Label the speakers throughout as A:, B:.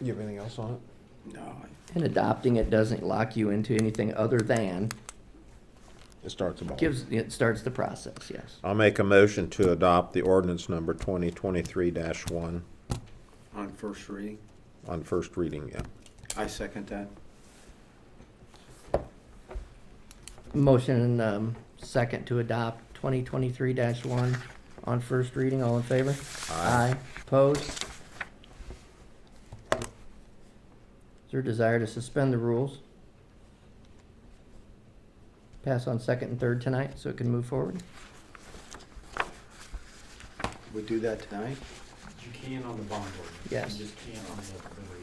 A: You have anything else on it?
B: No,
C: And adopting it doesn't lock you into anything other than,
A: It starts about.
C: gives, it starts the process, yes.
D: I'll make a motion to adopt the ordinance number twenty twenty-three one
B: on first reading.
D: on first reading, yeah.
B: I second that.
C: Motion and um, second to adopt 2023-1 on first reading. All in favor?
D: Aye.
C: Opposed? Is there a desire to suspend the rules? Pass on second and third tonight so it can move forward?
B: We do that tonight?
E: You can on the bond ordinance.
C: Yes.
E: You just can't on the, the rate.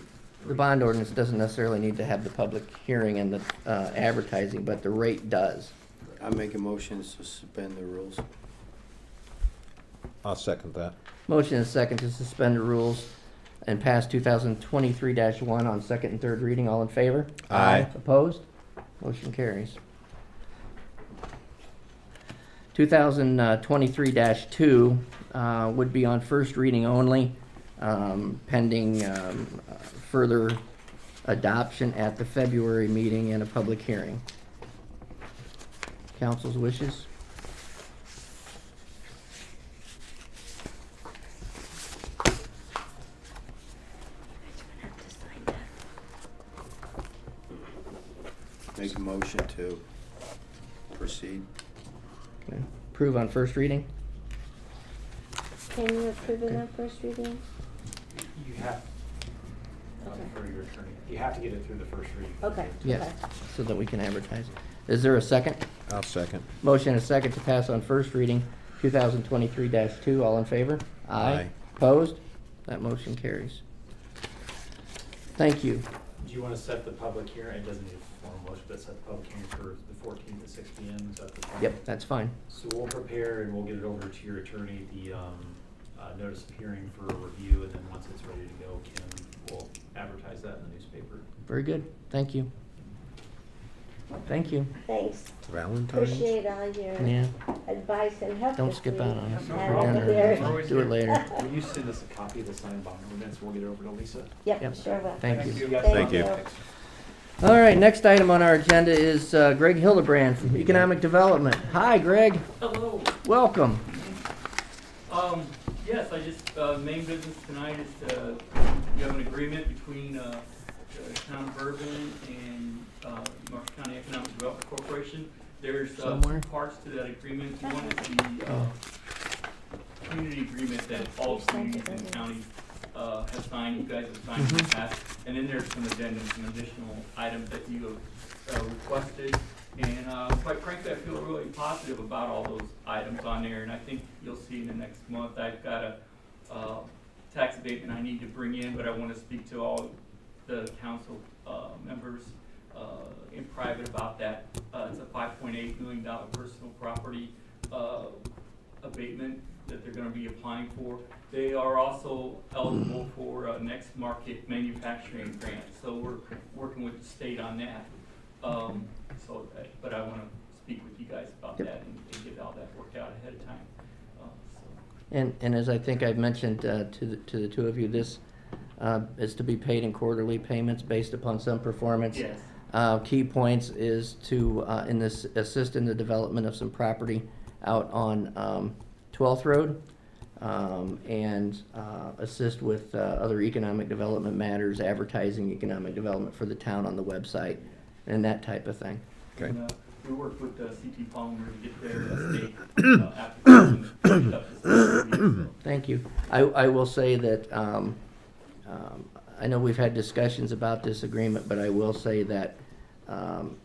C: The bond ordinance doesn't necessarily need to have the public hearing and the uh, advertising, but the rate does.
B: I make a motion to suspend the rules.
D: I'll second that.
C: Motion is second to suspend the rules and pass 2023-1 on second and third reading. All in favor?
D: Aye.
C: Opposed? Motion carries. 2023-2 uh, would be on first reading only, um, pending um, uh, further adoption at the February meeting and a public hearing. Council's wishes?
B: Make a motion to proceed.
C: Okay. Approve on first reading?
F: Can you approve it on first reading?
E: You have, uh,
F: Okay.
E: for your attorney, you have to get it through the first reading.
F: Okay.
C: Yes, so that we can advertise. Is there a second?
D: I'll second.
C: Motion and a second to pass on first reading, 2023-2. All in favor?
D: Aye.
C: Opposed? That motion carries. Thank you.
E: Do you wanna set the public hearing, it doesn't need a formal motion, but set the public hearing for the fourteenth at six P M, is that the plan?
C: Yep, that's fine.
E: So we'll prepare and we'll get it over to your attorney, the, um, uh, notice of hearing for review, and then once it's ready to go, Kim will advertise that in the newspaper.
C: Very good. Thank you. Thank you.
F: Thanks.
D: Valentine's?
F: Appreciate all your
C: Yeah.
F: advice and help.
C: Don't
F: this
C: skip
F: week.
C: out on us
E: No
F: Have
C: for
F: a
E: problem.
F: good-
E: We're
C: dinner.
E: always
C: Do it
E: here.
C: later.
E: Will you send us a copy of the signed bond ordinance, we'll get it over to Lisa?
C: Yep.
F: Yep, sure will.
C: Thank you.
E: guys.
F: Thank
D: Thank you.
F: you.
C: All right, next item on our agenda is uh, Greg Hildebrand from Economic Development. Hi, Greg.
G: Hello.
C: Welcome.
G: Um, yes, I just, uh, main business tonight is, uh, you have an agreement between, uh, the town of Bourbon and, uh, Marshall County Economic Development Corporation. There's, uh,
C: Somewhere.
G: parts to that agreement. One is the, uh, community agreement that all communities and counties, uh, have signed, you guys have signed in the past. And then there's some addendums, some additional items that you have, uh, requested. And, uh, quite frankly, I feel really positive about all those items on there, and I think you'll see in the next month, I've got a, uh, tax abatement I need to bring in, but I wanna speak to all the council, uh, members, uh, in private about that. Uh, it's a five point eight million dollar personal property, uh, abatement that they're gonna be applying for. They are also eligible for, uh, next market manufacturing grant, so we're working with the state on that. Um, so, uh, but I wanna speak with you guys about
C: Yep.
G: that and, and get all that worked out ahead of time, uh, so.
C: And, and as I think I've mentioned uh, to, the- to the two of you, this uh, is to be paid in quarterly payments based upon some performance.
G: Yes.
C: Uh, Key points is to, uh, in this, assist in the development of some property out on um, 12th Road um, and uh, assist with uh, other economic development matters, advertising economic development for the town on the website and that type of thing.
D: Okay.
G: And, uh, We worked with uh, CT Palmer to get their uh, state uh, application finished up this last week, so.
C: Thank you. I, I will say that, um, um, I know we've had discussions about this agreement, but I will say that, um,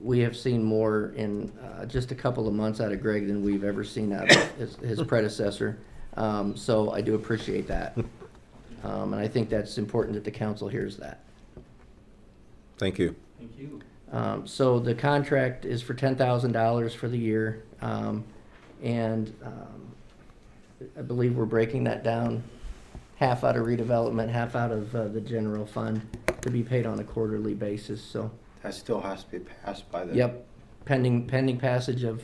C: we have seen more in, uh, just a couple of months out of Greg than we've ever seen out of his, his predecessor. Um, so I do appreciate that. Um, and I think that's important that the council hears that.
D: Thank you.
G: Thank you.
C: Um, so the contract is for ten thousand dollars for the year, um, and, um, I believe we're breaking that down half out of redevelopment, half out of, uh, the general fund to be paid on a quarterly basis, so,
B: That still has to be passed by the.
C: yep. Pending, pending passage of